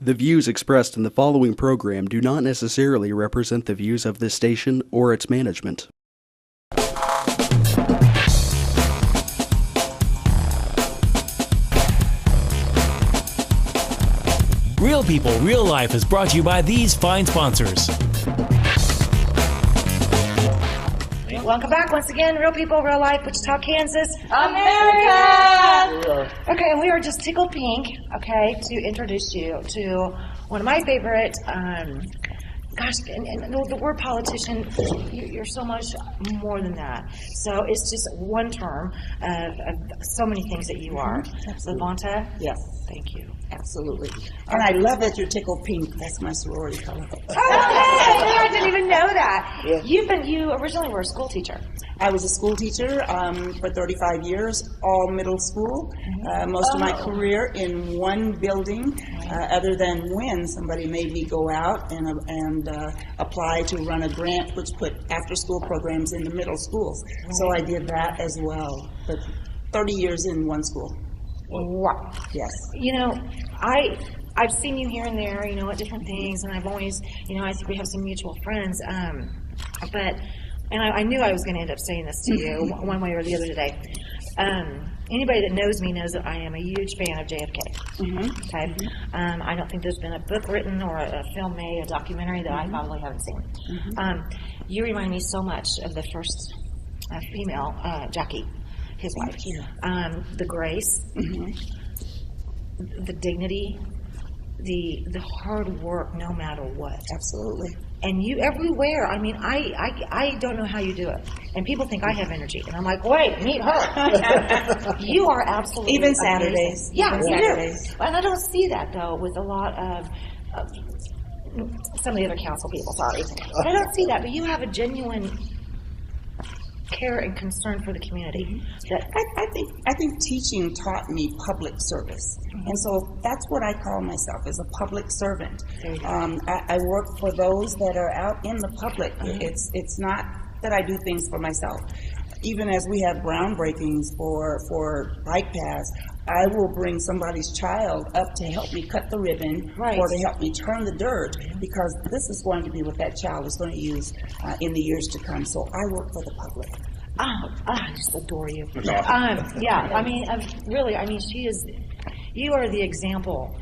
The views expressed in the following program do not necessarily represent the views of this station or its management. Real People, Real Life is brought to you by these fine sponsors. Welcome back once again, Real People, Real Life, Wichita, Kansas, America! Okay, and we are just tickled pink, okay, to introduce you to one of my favorite, um, gosh, and, and the the word politician, you- you're so much more than that. So it's just one term of, of so many things that you are. Levanta? Yes. Thank you. Absolutely. And I love that you're tickled pink. That's my sorority color. Okay, I didn't even know that. Yeah. You've been, you originally were a school teacher. I was a school teacher um, for 35 years, all middle school. Uh, most of my career in one building, uh, other than when somebody made me go out and, uh, and uh, apply to run a grant which put after school programs in the middle schools. So I did that as well. But 30 years in one school. Wow. Yes. you know, I I've seen you here and there, you know, at different things, and I've always, you know, I think we have some mutual friends. Um, but and I, I knew I was going to end up saying this to you one one way or the other today. Um, anybody that knows me knows that I am a huge fan of JFK. Okay, um, I don't think there's been a book written or a, a film made, a documentary that I probably haven't seen. Um, you remind me so much of the first uh, female uh, Jackie, his wife. Um, the grace the dignity, the the hard work, no matter what. Absolutely. And you everywhere. I mean, I I, I don't know how you do it. And people think I have energy, and I'm like, wait, meet her. you are absolutely Even amazing. Saturdays. Yeah, Even you do. Saturdays. And I don't see that though with a lot of. of some of the other council people, sorry. But I don't see that, but you have a genuine care and concern for the community. That I, I think I think teaching taught me public service, and so that's what I call myself as a public servant. Um, I, I work for those that are out in the public. It's it's not that I do things for myself. Even as we have groundbreakings for for bike paths, I will bring somebody's child up to help me cut the ribbon Right. or to help me turn the dirt because this is going to be what that child is going to use uh, in the years to come. So I work for the public. Oh, I just adore you. Um, yeah, I mean, i really, I mean, she is, you are the example,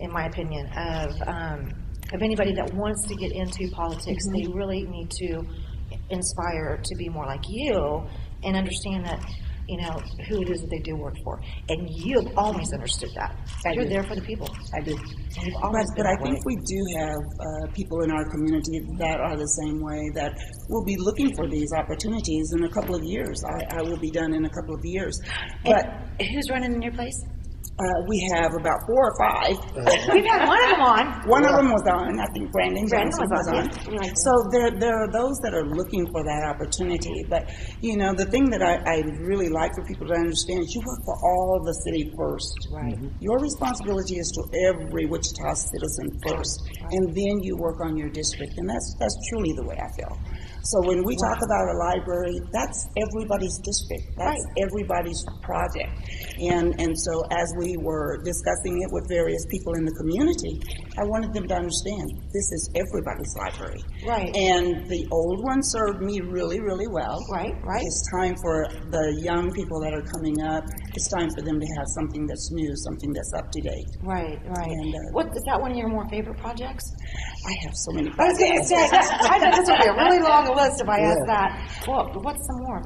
in my opinion, of, um, of anybody that wants to get into politics. They Mm-hmm. really need to inspire to be more like you and understand that, you know, who it is that they do work for. And you have always understood that. You're do. there for the people. I do. You've But, always been but I that way. think we do have uh, people in our community that are the same way that will be looking for these opportunities in a couple of years. I, I will be done in a couple of years. But And who's running in your place? uh, we have about four or five. We've had one of them on. One of them was on, I think Brandon Brandon Johnson was was on, on. yeah. Right. So there, there are those that are looking for that opportunity. But, you know, the thing that I, I really like for people to understand is you work for all the city first. Right. Your responsibility is to every Wichita citizen first, and then you work on your district. And that's, that's truly the way I feel. So when we talk about a library, that's everybody's district. That's everybody's project. And, and so as we were discussing it with various people in the community, I wanted them to understand, this is everybody's library. Right. And the old one served me really, really well. Right, right. It's time for the young people that are coming up, it's time for them to have something that's new, something that's up to date. Right, right. And, uh, what is that one of your more favorite projects? I have so many. I was going to say, I know this would be a really long list if I asked that. Well, what's some more?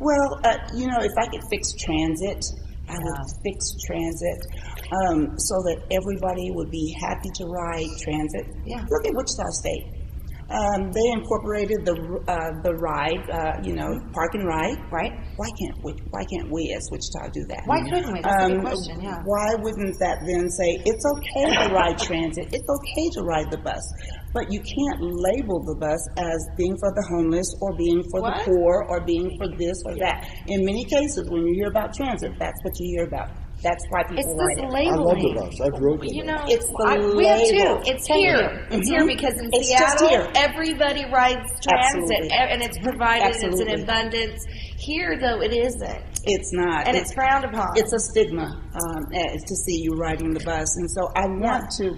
Well, uh, you know, if I could fix transit, I would fix transit um, so that everybody would be happy to ride transit. Yeah. Look at Wichita State. Um, they incorporated the uh, the ride, uh, you know, park and ride. Right. Why can't we? Why can't we as Wichita do that? Why couldn't we? That's a good question, yeah. Mm-hmm. Um, Why wouldn't that then say it's okay to ride transit? It's okay to ride the bus, but you can't label the bus as being for the homeless or being for What? the poor or being for this or that. In many cases, when you hear about transit, that's what you hear about. That's why people It's this ride it. I love the labeling. bus. I've rode the You bus. know, It's the I- we have label. Mm-hmm. two. It's here. It's here because in It's just Seattle, here. everybody rides transit, Absolutely. e- and it's provided. It's Absolutely. an abundance. Here, though, it isn't, It's not. and it's frowned upon. it's a stigma um, eh, to see you riding the bus, and so I want to